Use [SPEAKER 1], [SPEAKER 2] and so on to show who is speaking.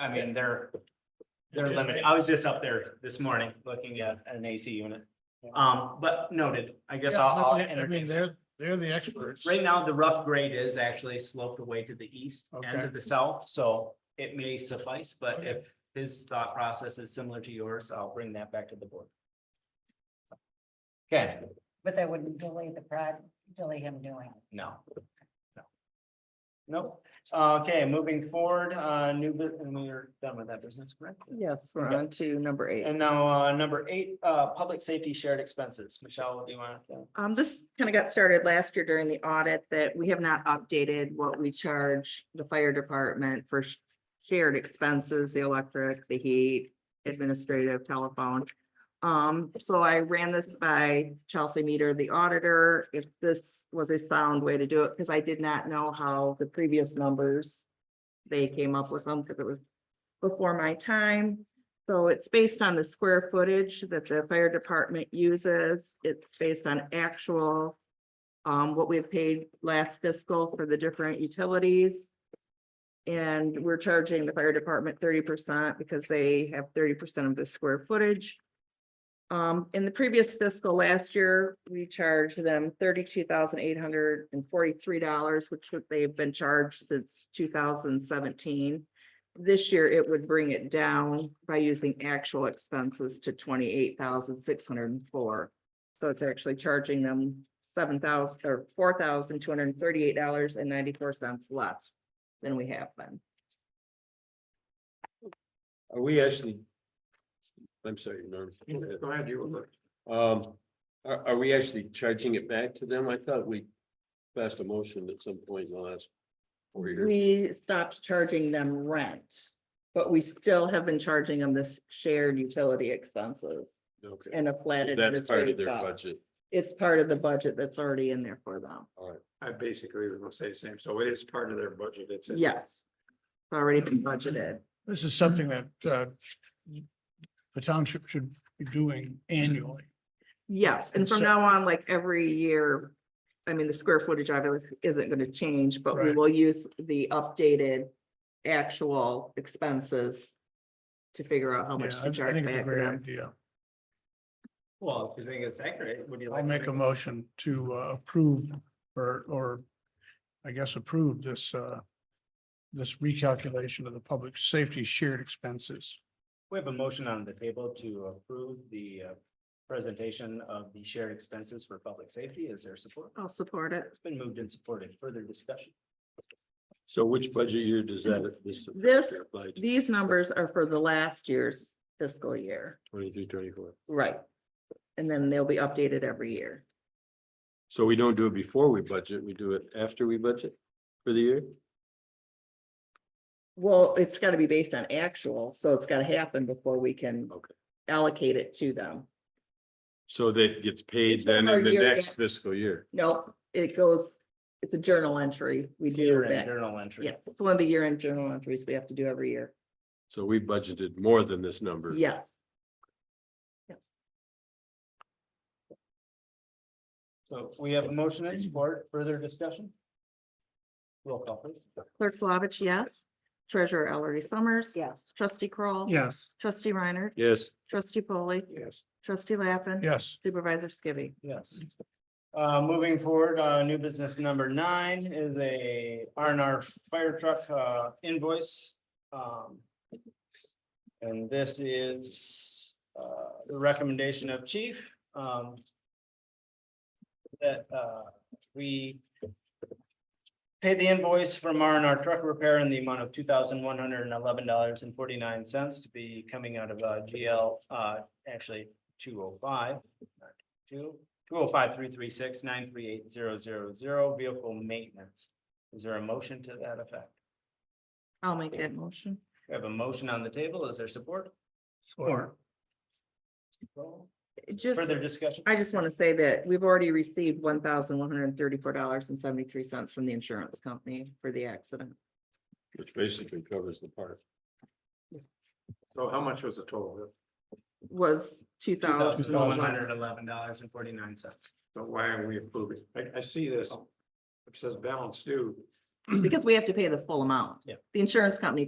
[SPEAKER 1] I mean, they're, they're limited. I was just up there this morning looking at an AC unit. Um, but noted, I guess
[SPEAKER 2] Yeah,
[SPEAKER 1] I'll, I'll
[SPEAKER 2] I- I mean,
[SPEAKER 1] entertain.
[SPEAKER 2] they're, they're the experts.
[SPEAKER 1] Right now, the rough grade is actually sloped away to the east and to
[SPEAKER 2] Okay.
[SPEAKER 1] the south, so it may suffice, but
[SPEAKER 2] Okay.
[SPEAKER 1] if his thought process is similar to yours, I'll bring that back to the board. Okay,
[SPEAKER 3] But that wouldn't delay the project, delay him doing it.
[SPEAKER 1] no. No. Nope. Okay, moving forward, uh, new, bu- and we're done with that business, correct?
[SPEAKER 4] Yes, we're
[SPEAKER 1] Okay.
[SPEAKER 4] on to number eight.
[SPEAKER 1] And now, uh, number eight, uh, public safety shared expenses. Michelle, do you want to?
[SPEAKER 4] Um, this kind of got started last year during the audit that we have not updated what we charge the fire department for sh- shared expenses, the electric, the heat, administrative, telephone. Um, so I ran this by Chelsea Meter, the auditor, if this was a sound way to do it, because I did not know how the previous numbers they came up with them, because it was before my time. So it's based on the square footage that the fire department uses. It's based on actual. Um, what we've paid last fiscal for the different utilities. And we're charging the fire department thirty percent because they have thirty percent of the square footage. Um, in the previous fiscal last year, we charged them thirty-two thousand eight hundred and forty-three dollars, which would- they've been charged since two thousand seventeen. This year, it would bring it down by using actual expenses to twenty-eight thousand six hundred and four. So it's actually charging them seven thousand or four thousand two hundred and thirty-eight dollars and ninety-four cents less than we have been.
[SPEAKER 5] Are we actually? I'm sorry, Norm.
[SPEAKER 2] Go ahead, you were.
[SPEAKER 5] Um, are, are we actually charging it back to them? I thought we passed a motion at some point in the last four years.
[SPEAKER 4] We stopped charging them rent, but we still have been charging them this shared utility expenses
[SPEAKER 5] Okay,
[SPEAKER 4] and a flat.
[SPEAKER 5] that's part of
[SPEAKER 4] administrative
[SPEAKER 5] their
[SPEAKER 4] cost.
[SPEAKER 5] budget.
[SPEAKER 4] It's part of the budget that's already in there for them.
[SPEAKER 6] I basically was gonna say the same, so it is part of their budget, it's. in-
[SPEAKER 4] Yes. It's Already been budgeted.
[SPEAKER 2] This is something that, uh, the township should be doing annually.
[SPEAKER 4] Yes, and
[SPEAKER 2] And
[SPEAKER 4] from
[SPEAKER 2] so-
[SPEAKER 4] now on, like every year, I mean, the square footage obviously isn't gonna change, but we
[SPEAKER 2] Right.
[SPEAKER 4] will use the updated actual expenses to figure out how
[SPEAKER 2] Yeah,
[SPEAKER 4] much
[SPEAKER 2] I I
[SPEAKER 4] to charge
[SPEAKER 2] think it's a
[SPEAKER 4] back to
[SPEAKER 2] great
[SPEAKER 4] them.
[SPEAKER 2] idea.
[SPEAKER 1] Well, if you think it's accurate, would you like?
[SPEAKER 2] I'll
[SPEAKER 1] to
[SPEAKER 2] make a motion to uh, approve or, or I guess approve this, uh, this recalculation of the public safety shared expenses.
[SPEAKER 1] We have a motion on the table to approve the uh, presentation of the shared expenses for public safety. Is there support?
[SPEAKER 4] I'll support it.
[SPEAKER 1] It's been moved and supported. Further discussion?
[SPEAKER 5] So which budget year does that?
[SPEAKER 4] This-
[SPEAKER 5] Apply to
[SPEAKER 4] These numbers are for the last year's fiscal year.
[SPEAKER 5] twenty-three, twenty-four.
[SPEAKER 4] Right. And then they'll be updated every year.
[SPEAKER 5] So we don't do it before we budget, we do it after we budget for the year?
[SPEAKER 4] Well, it's gotta be based on actual, so it's gotta happen before we can
[SPEAKER 5] Okay.
[SPEAKER 4] allocate it to them.
[SPEAKER 5] So that gets paid
[SPEAKER 4] It's for
[SPEAKER 5] then
[SPEAKER 4] our
[SPEAKER 5] in the
[SPEAKER 4] year
[SPEAKER 5] next
[SPEAKER 4] end.
[SPEAKER 5] fiscal year.
[SPEAKER 4] Nope, it goes, it's a journal entry. We
[SPEAKER 1] It's
[SPEAKER 4] do
[SPEAKER 1] year-end
[SPEAKER 4] that.
[SPEAKER 1] Journal entry.
[SPEAKER 4] Yes, it's one of the year-end journal entries we have to do every year.
[SPEAKER 5] So we budgeted more than this number.
[SPEAKER 4] Yes. Yes.
[SPEAKER 1] So we have a motion and support. Further discussion? Roll call please.
[SPEAKER 4] Clerk Flavich, yes. Treasurer Ellery Summers.
[SPEAKER 3] Yes.
[SPEAKER 4] Trustee Kroll,
[SPEAKER 2] Yes.
[SPEAKER 4] Trustee Reiner.
[SPEAKER 5] Yes,
[SPEAKER 4] Trustee Polly.
[SPEAKER 6] Yes,
[SPEAKER 4] Trustee Lappin.
[SPEAKER 2] Yes,
[SPEAKER 4] Supervisor Skibby.
[SPEAKER 1] Yes. Uh, moving forward, uh, new business number nine is a R and R fire truck, uh, invoice. Um, And this is, uh, the recommendation of chief, um. That, uh, we. Pay the invoice from R and R truck repair in the amount of two thousand one hundred and eleven dollars and forty-nine cents to be coming out of, uh, GL, uh, actually two oh five. Two, two oh five, three, three, six, nine, three, eight, zero, zero, zero, vehicle maintenance. Is there a motion to that effect?
[SPEAKER 4] I'll make that motion.
[SPEAKER 1] We have a motion on the table. Is there support?
[SPEAKER 2] Support.
[SPEAKER 4] Just,
[SPEAKER 1] Further discussion?
[SPEAKER 4] I just want to say that we've already received one thousand one hundred and thirty-four dollars and seventy-three cents from the insurance company for the accident.
[SPEAKER 5] which basically covers the part.
[SPEAKER 6] so how much was the total?
[SPEAKER 4] Was two thousand.
[SPEAKER 1] One hundred eleven dollars and forty-nine cents.
[SPEAKER 6] So why are we approving? I, I see this, it says balance due.
[SPEAKER 4] Because we have to pay the full amount.
[SPEAKER 1] Yeah.
[SPEAKER 4] The insurance company